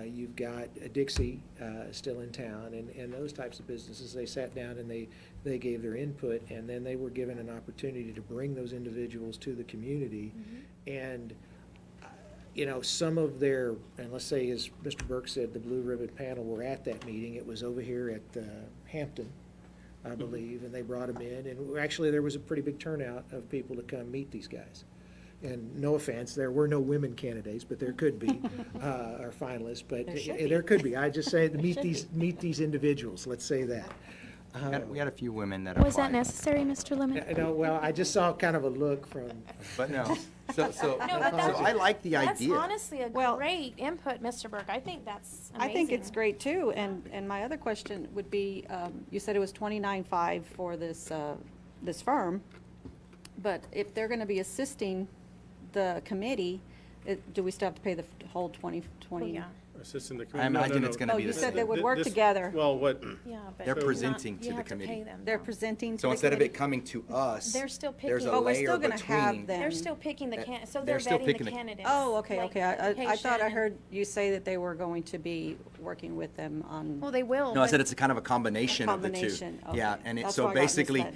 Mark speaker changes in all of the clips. Speaker 1: Uh, you've got Dixie uh, still in town, and, and those types of businesses, they sat down and they, they gave their input, and then they were given an opportunity to bring those individuals to the community. And, uh, you know, some of their, and let's say, as Mr. Burke said, the Blue Ribbon panel were at that meeting, it was over here at uh, Hampton, I believe, and they brought them in, and actually, there was a pretty big turnout of people to come meet these guys. And no offense, there were no women candidates, but there could be, uh, or finalists, but
Speaker 2: There should
Speaker 1: eh, there could be. I just say, to meet these, meet these individuals, let's say that.
Speaker 3: We had- We had a few women that applied.
Speaker 4: Was that necessary, Mr. Lemon?
Speaker 1: Eh, No, well, I just saw kind of a look from,
Speaker 3: But no, so, so, so
Speaker 4: No, but that's-
Speaker 3: I like the
Speaker 4: That's
Speaker 3: idea.
Speaker 4: honestly a
Speaker 2: Well-
Speaker 4: great input, Mr. Burke. I think that's
Speaker 2: I
Speaker 4: amazing.
Speaker 2: think it's great too, and, and my other question would be, um, you said it was twenty-nine five for this, uh, this firm, but if they're gonna be assisting the committee, it, do we still have to pay the f- whole twenty,
Speaker 4: Well,
Speaker 2: twenty?
Speaker 4: yeah,
Speaker 5: Assisting the
Speaker 3: I
Speaker 5: committee. No, no,
Speaker 3: imagine it's
Speaker 5: no.
Speaker 3: gonna
Speaker 2: Oh,
Speaker 3: be
Speaker 2: you
Speaker 3: the
Speaker 2: said they
Speaker 3: same.
Speaker 2: would work
Speaker 5: This-
Speaker 2: together.
Speaker 5: Well, what,
Speaker 4: yeah, but.
Speaker 3: They're
Speaker 4: it's not-
Speaker 3: presenting to
Speaker 4: you
Speaker 3: the
Speaker 4: have pay
Speaker 3: committee.
Speaker 4: them,
Speaker 2: They're
Speaker 4: though.
Speaker 2: presenting to
Speaker 3: So
Speaker 2: the
Speaker 3: instead of it
Speaker 2: committee.
Speaker 3: coming to us,
Speaker 4: They're still
Speaker 3: there's a
Speaker 4: picking- Oh,
Speaker 2: we're still
Speaker 3: layer
Speaker 2: gonna have
Speaker 3: between.
Speaker 2: them.
Speaker 4: They're still picking the
Speaker 3: That-
Speaker 4: can, so
Speaker 3: they're
Speaker 4: they're
Speaker 3: still
Speaker 4: vetting the
Speaker 3: picking the-
Speaker 4: candidates.
Speaker 2: Oh, okay,
Speaker 4: like
Speaker 2: okay, I, I- I thought
Speaker 4: location
Speaker 2: I
Speaker 4: and-
Speaker 2: heard you say that they were going to be working with them on.
Speaker 4: Well, they will.
Speaker 3: No, I said
Speaker 4: but-
Speaker 3: it's a kind of a combination of the two.
Speaker 2: combination,
Speaker 3: Yeah,
Speaker 2: okay.
Speaker 3: and it,
Speaker 2: That's
Speaker 3: so
Speaker 2: where I got
Speaker 3: basically,
Speaker 2: misled.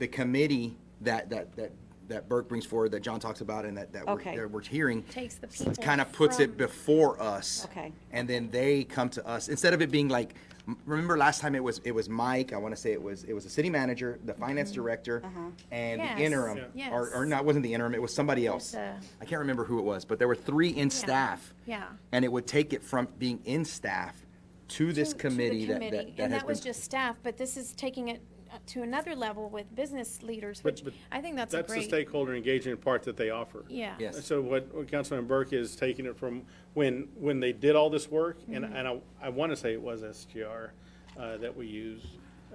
Speaker 3: the committee that, that, that, that Burke brings forward, that John talks about and that, that we're,
Speaker 2: Okay.
Speaker 3: that we're hearing.
Speaker 4: Takes the people
Speaker 3: Kind of puts it
Speaker 4: from-
Speaker 3: before us.
Speaker 2: Okay.
Speaker 3: And then they come to us, instead of it being like, m- remember last time it was, it was Mike, I want to say it was, it was the city manager, the finance
Speaker 2: Mm-hmm.
Speaker 3: director,
Speaker 2: Uh-huh.
Speaker 3: and
Speaker 4: Yes.
Speaker 3: the interim.
Speaker 4: Yeah.
Speaker 3: Or, or
Speaker 4: Yes.
Speaker 3: not, wasn't the interim, it was somebody else.
Speaker 4: a-
Speaker 3: I can't remember who it was, but there were three in staff.
Speaker 4: yeah.
Speaker 3: And it would take it from being in staff to this
Speaker 4: to- to the
Speaker 3: committee that,
Speaker 4: committee,
Speaker 3: that, that has been.
Speaker 4: And that was just staff, but this is taking it uh, to another level with business leaders,
Speaker 5: But-
Speaker 4: which
Speaker 5: but
Speaker 4: I think that's a
Speaker 5: that's the
Speaker 4: great.
Speaker 5: stakeholder engagement part that they offer.
Speaker 4: Yeah.
Speaker 3: Yes.
Speaker 5: So what what Councilman Burke is taking it from when, when they did all this work, and, and I, I want to say it was SGR uh, that we used,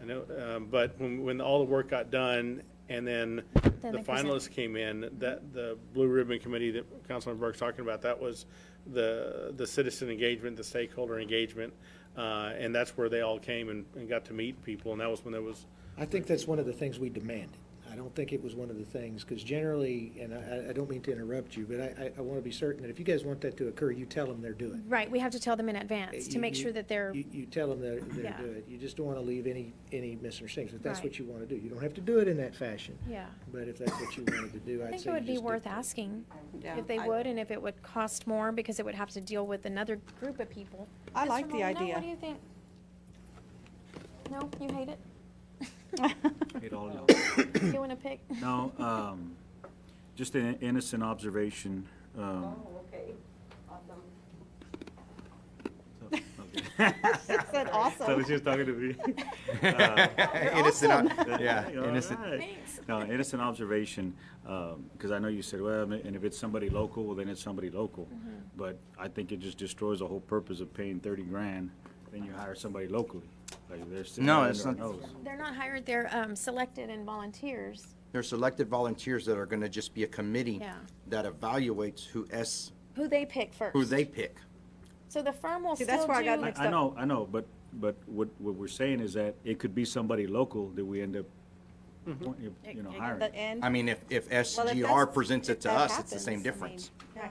Speaker 5: I know, um, but when, when all the work got done, and then
Speaker 4: Then
Speaker 5: the
Speaker 4: they present.
Speaker 5: finalists came in, that, the Blue Ribbon Committee that Councilman Burke's talking about, that was the, the citizen engagement, the stakeholder engagement, uh, and that's where they all came and, and got to meet people, and that was when there was,
Speaker 1: I think that's one of the things we demanded. I don't think it was one of the things, because generally, and I, I don't mean to interrupt you, but I, I, I want to be certain that if you guys want that to occur, you tell them they're doing.
Speaker 4: Right, we have to tell them in
Speaker 3: Uh,
Speaker 4: advance to
Speaker 1: You-
Speaker 4: make
Speaker 1: you-
Speaker 4: sure that they're,
Speaker 1: You, you tell them they're, they're
Speaker 4: Yeah.
Speaker 1: good. You just don't want to leave any, any misunderstandings, if that's
Speaker 4: Right.
Speaker 1: what you want to do. You don't have to do it in that fashion.
Speaker 4: Yeah.
Speaker 1: But if that's what you wanted to do,
Speaker 4: I
Speaker 1: I'd
Speaker 4: think
Speaker 1: say you
Speaker 4: it would be
Speaker 1: just do
Speaker 4: worth
Speaker 1: that.
Speaker 4: asking
Speaker 2: Yeah,
Speaker 4: if they
Speaker 2: I-
Speaker 4: would and if it would cost more because it would have to deal with another group of people.
Speaker 2: I
Speaker 4: Mr.
Speaker 2: like the
Speaker 4: Molyneux,
Speaker 2: idea.
Speaker 4: What do you think? No, you hate it?
Speaker 6: It all in all.
Speaker 4: You want to pick?
Speaker 6: No, um, just an innocent observation. um,
Speaker 2: Said
Speaker 6: So I
Speaker 2: awesome.
Speaker 6: was just talking to me.
Speaker 3: Innocent, uh, yeah,
Speaker 6: All
Speaker 3: innocent.
Speaker 6: right. No, innocent observation, because I know you said, well, and if it's somebody local, well, then it's somebody local. But I think it just destroys the whole purpose of paying thirty grand, then you hire somebody locally. Like, they're sitting
Speaker 3: No,
Speaker 6: under
Speaker 3: it's
Speaker 6: our
Speaker 3: not-
Speaker 6: nose.
Speaker 4: They're not hired, they're um, selected and volunteers.
Speaker 3: They're selected volunteers that are gonna just be a committee
Speaker 4: Yeah.
Speaker 3: that evaluates who S,
Speaker 4: Who they pick first.
Speaker 3: who they pick.
Speaker 4: So the firm will
Speaker 2: See,
Speaker 4: still do.
Speaker 2: that's where I got mixed
Speaker 6: I, I know, I know, but, but what, what we're saying is that it could be somebody local that we end up, appoint- you know, hiring.
Speaker 2: The end.
Speaker 3: I mean, if, if
Speaker 2: Well, if
Speaker 3: SGR
Speaker 2: that's-
Speaker 3: presents
Speaker 2: if
Speaker 3: it to
Speaker 2: that
Speaker 3: us, it's the
Speaker 2: happens, I mean,
Speaker 3: same difference.
Speaker 2: yeah,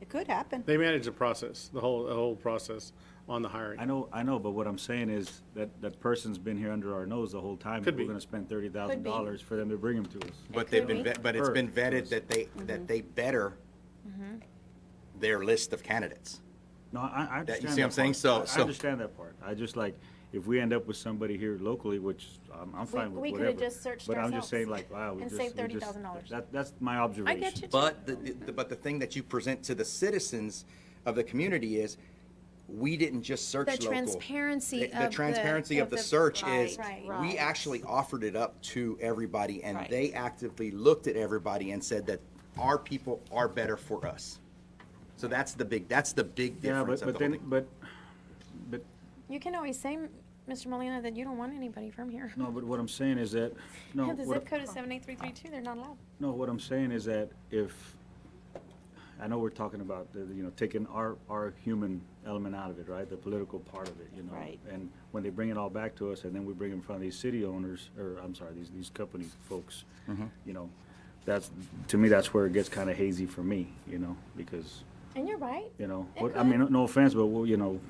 Speaker 2: It could happen.
Speaker 5: they managed the process, the whole, the whole process on the hiring.
Speaker 6: I know, I know, but what I'm saying is that that person's been here under our nose the whole time.
Speaker 5: Could be.
Speaker 6: We're gonna spend thirty thousand dollars for them to bring him to us.
Speaker 3: But they've
Speaker 4: could
Speaker 3: been,
Speaker 4: be. Mm-hmm.
Speaker 3: vet- but it's been
Speaker 6: Prefer to
Speaker 3: vetted
Speaker 6: us.
Speaker 3: that they, that they better their list of candidates.
Speaker 6: No, I, I
Speaker 3: That-
Speaker 6: understand.
Speaker 3: you see what I'm
Speaker 6: that
Speaker 3: saying?
Speaker 6: part.
Speaker 3: So-
Speaker 6: I-
Speaker 3: so-
Speaker 6: I understand that part. I just like, if we end up with somebody here locally, which I'm, I'm fine
Speaker 4: we
Speaker 6: with
Speaker 4: could've
Speaker 6: whatever.
Speaker 4: just searched
Speaker 6: But I'm just saying
Speaker 4: ourselves
Speaker 6: like, wow, we
Speaker 4: and
Speaker 6: just.
Speaker 4: saved
Speaker 6: we just-
Speaker 4: $30,000.
Speaker 6: That, that's my observation.
Speaker 4: you, too.
Speaker 3: But, the- the- but the thing that you present to the citizens of the community is, we didn't just search
Speaker 4: The
Speaker 3: local.
Speaker 4: transparency
Speaker 3: The-
Speaker 4: of the-
Speaker 3: The transparency
Speaker 4: of
Speaker 3: of the
Speaker 4: the-
Speaker 3: search
Speaker 4: Right,
Speaker 3: is,
Speaker 4: right.
Speaker 3: we actually offered it up to everybody, and
Speaker 2: Right.
Speaker 3: they actively looked at everybody and said that our people are better for us. So that's the big, that's the big
Speaker 6: Yeah,
Speaker 3: difference
Speaker 6: but,
Speaker 3: of
Speaker 6: but
Speaker 3: the whole
Speaker 6: then,
Speaker 3: thing.
Speaker 6: but, but
Speaker 4: You can always say, Mr. Molina, that you don't want anybody from here.
Speaker 6: No, but what I'm saying is that, no.
Speaker 4: Yeah, the
Speaker 6: what-
Speaker 4: zip code is seven eight three three two, they're not allowed.
Speaker 6: No, what I'm saying is that if, I know we're talking about, the you know, taking our, our human element out of it, right? The political part of it, you know?
Speaker 2: Right.
Speaker 6: And when they bring it all back to us, and then we bring it in front of these city owners, or, I'm sorry, these, these company folks, you know, that's, to me, that's where it gets kind of hazy for me, you know, because,
Speaker 4: And you're right.
Speaker 6: you know,
Speaker 4: It
Speaker 6: what- I
Speaker 4: could.
Speaker 6: mean, no offense, but, well, you know,